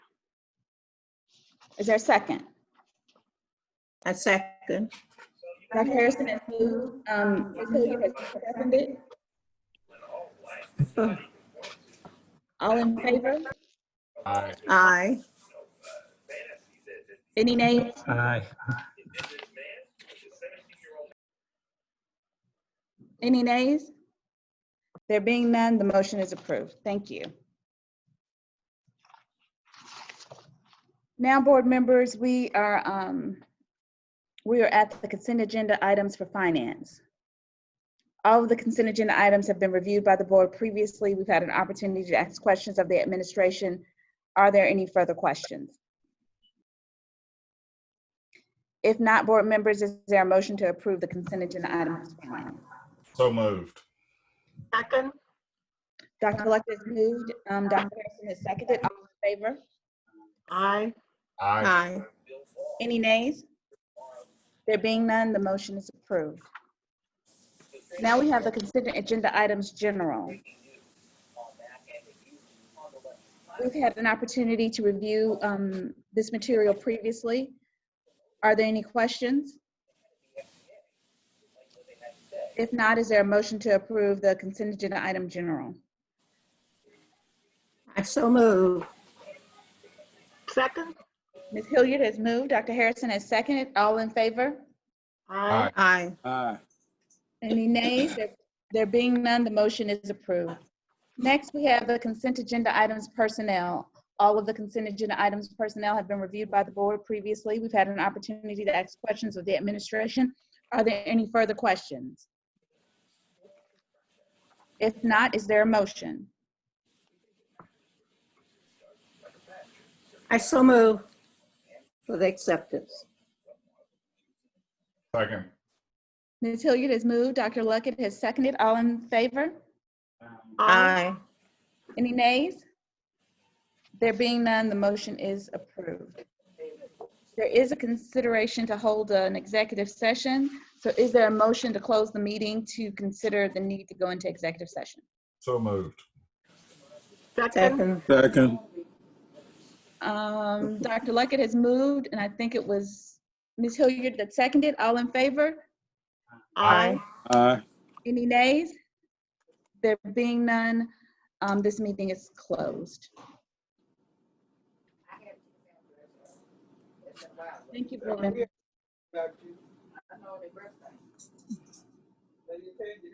Is there a second? I second. Dr. Harrison has moved, um, Ms. Hilliard has seconded. All in favor? Aye. Aye. Any nays? Aye. Any nays? There being none, the motion is approved. Thank you. Now, board members, we are, um, we are at the consent agenda items for finance. All of the consent agenda items have been reviewed by the board previously. We've had an opportunity to ask questions of the administration. Are there any further questions? If not, board members, is there a motion to approve the consent agenda items for finance? So moved. Second, Dr. Luckett has moved, um, Dr. Harrison has seconded, all in favor? aye. Aye. Aye. Any nays? There being none, the motion is approved. Now we have the consent agenda items general. We've had an opportunity to review, um, this material previously. Are there any questions? If not, is there a motion to approve the consent agenda item general? I so move. Second, Ms. Hilliard has moved, Dr. Harrison has seconded. All in favor? aye. Aye. Aye. Any nays? There- There being none, the motion is approved. Next, we have the consent agenda items personnel. All of the consent agenda items personnel have been reviewed by the board previously. We've had an opportunity to ask questions of the administration. Are there any further questions? If not, is there a motion? I so move for the acceptance. Second. Ms. Hilliard has moved, Dr. Luckett has seconded. All in favor? Aye. Any nays? There being none, the motion is approved. There is a consideration to hold an executive session. So is there a motion to close the meeting to consider the need to go into executive session? So moved. Second, Second. Second. Um, Dr. Luckett has moved, and I think it was Ms. Hilliard that seconded. All in favor? aye. Aye. Any nays? There being none, um, this meeting is closed. Thank you, board members.